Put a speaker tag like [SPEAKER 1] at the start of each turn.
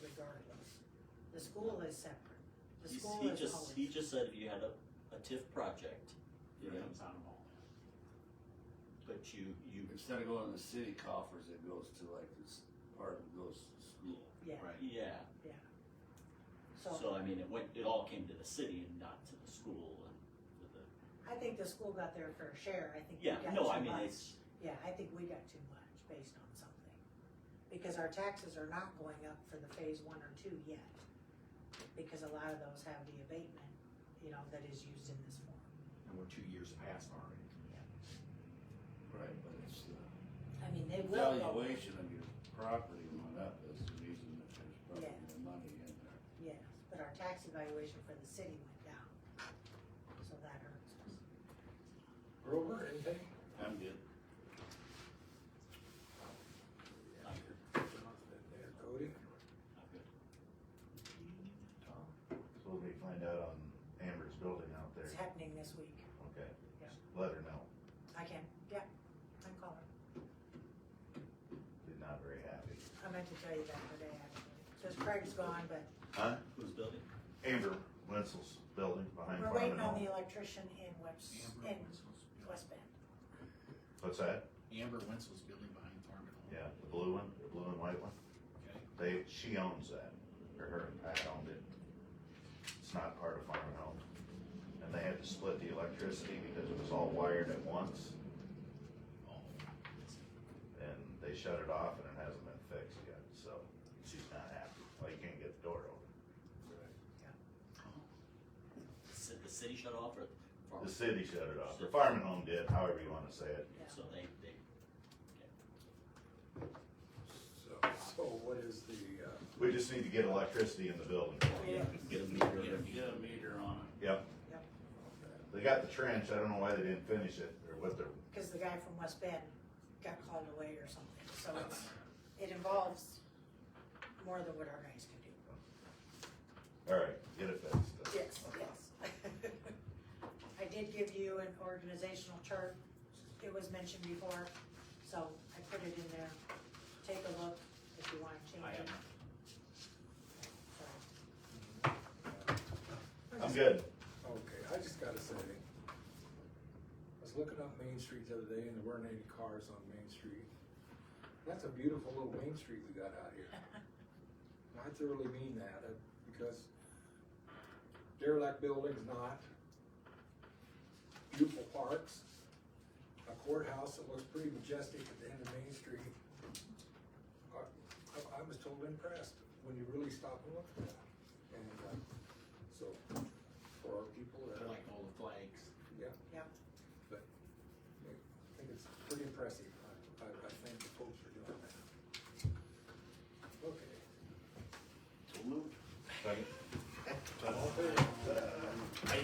[SPEAKER 1] The school is separate. The
[SPEAKER 2] He's-
[SPEAKER 1] school
[SPEAKER 2] He
[SPEAKER 1] is
[SPEAKER 2] just, he
[SPEAKER 1] always,
[SPEAKER 2] just said if you had a, a TIF project,
[SPEAKER 3] Yeah.
[SPEAKER 2] Yeah. but you, you,
[SPEAKER 3] Instead of going to the city coffers, it goes to like this part of goes to school.
[SPEAKER 1] yeah,
[SPEAKER 3] Right.
[SPEAKER 2] yeah.
[SPEAKER 1] so
[SPEAKER 2] So I mean, it went, it all came to the city and not to the school and to the,
[SPEAKER 1] I think the school got their fair share, I think we
[SPEAKER 2] yeah,
[SPEAKER 1] got too much.
[SPEAKER 2] no, I mean, it's,
[SPEAKER 1] Yeah, I think we got too much based on something, because our taxes are not going up for the phase one or two yet. Because a lot of those have the abatement, you know, that is used in this form.
[SPEAKER 4] and we're two years past already.
[SPEAKER 3] Right, but it's the
[SPEAKER 1] I mean, they will go,
[SPEAKER 3] valuation of your property went up is the reason that there's probably
[SPEAKER 1] Yeah.
[SPEAKER 3] more money in there.
[SPEAKER 1] yes, but our tax evaluation for the city went down, so that hurts us.
[SPEAKER 5] Grover, anything?
[SPEAKER 3] I'm good.
[SPEAKER 2] I'm good,
[SPEAKER 5] There, Cody?
[SPEAKER 2] I'm good.
[SPEAKER 6] So we'll be find out on Amber's building out there,
[SPEAKER 1] It's happening this week.
[SPEAKER 6] okay?
[SPEAKER 1] Yeah.
[SPEAKER 6] Let her know,
[SPEAKER 1] I can, yeah, I'm calling.
[SPEAKER 6] she's not very happy.
[SPEAKER 1] I meant to tell you that today, actually. Because Craig's gone, but
[SPEAKER 6] Huh?
[SPEAKER 2] Who's building?
[SPEAKER 6] Amber Wenzel's building behind
[SPEAKER 1] we're
[SPEAKER 6] Farm
[SPEAKER 1] waiting on
[SPEAKER 6] and
[SPEAKER 1] the
[SPEAKER 6] Home.
[SPEAKER 1] electrician in West, in West Bend.
[SPEAKER 6] What's that?
[SPEAKER 4] Amber Wenzel's building behind Farm and Home.
[SPEAKER 6] Yeah, the blue one, the blue and white one,
[SPEAKER 4] Okay,
[SPEAKER 6] they, she owns that, or her and Pat owned it. It's not part of Farm and Home. And they had to split the electricity because it was all wired at once,
[SPEAKER 4] oh,
[SPEAKER 6] and they shut it off and it hasn't been fixed yet, so she's not happy, like you can't get the door open.
[SPEAKER 2] The ci- The city shut off or? farm?
[SPEAKER 6] The city shut it off, the Farm and Home did, however you wanna say it.
[SPEAKER 1] Yeah.
[SPEAKER 2] So they, they,
[SPEAKER 5] So, so what is the, uh,
[SPEAKER 6] We just need to get electricity in the building.
[SPEAKER 1] Yeah.
[SPEAKER 2] get a meter, get a meter.
[SPEAKER 3] Get a meter on it.
[SPEAKER 6] Yep.
[SPEAKER 1] Yep.
[SPEAKER 6] They got the trench, I don't know why they didn't finish it, or what they're,
[SPEAKER 1] Because the guy from West Bend got called away or something, so it's, it involves more than what our guys can do.
[SPEAKER 6] alright, get it fixed.
[SPEAKER 1] Yes, yes. I did give you an organizational chart, it was mentioned before, so I put it in there. Take a look if you wanna change
[SPEAKER 2] I
[SPEAKER 1] it.
[SPEAKER 2] am,
[SPEAKER 1] So,
[SPEAKER 6] I'm good.
[SPEAKER 5] uh, okay, I just gotta say, I was looking up Main Street the other day and there weren't any cars on Main Street. That's a beautiful little Main Street we got out here. I thoroughly mean that, uh, because derelict buildings not, beautiful parks, a courthouse that looks pretty majestic at the end of Main Street. I, I- I was totally impressed when you really stop and uh, look at that.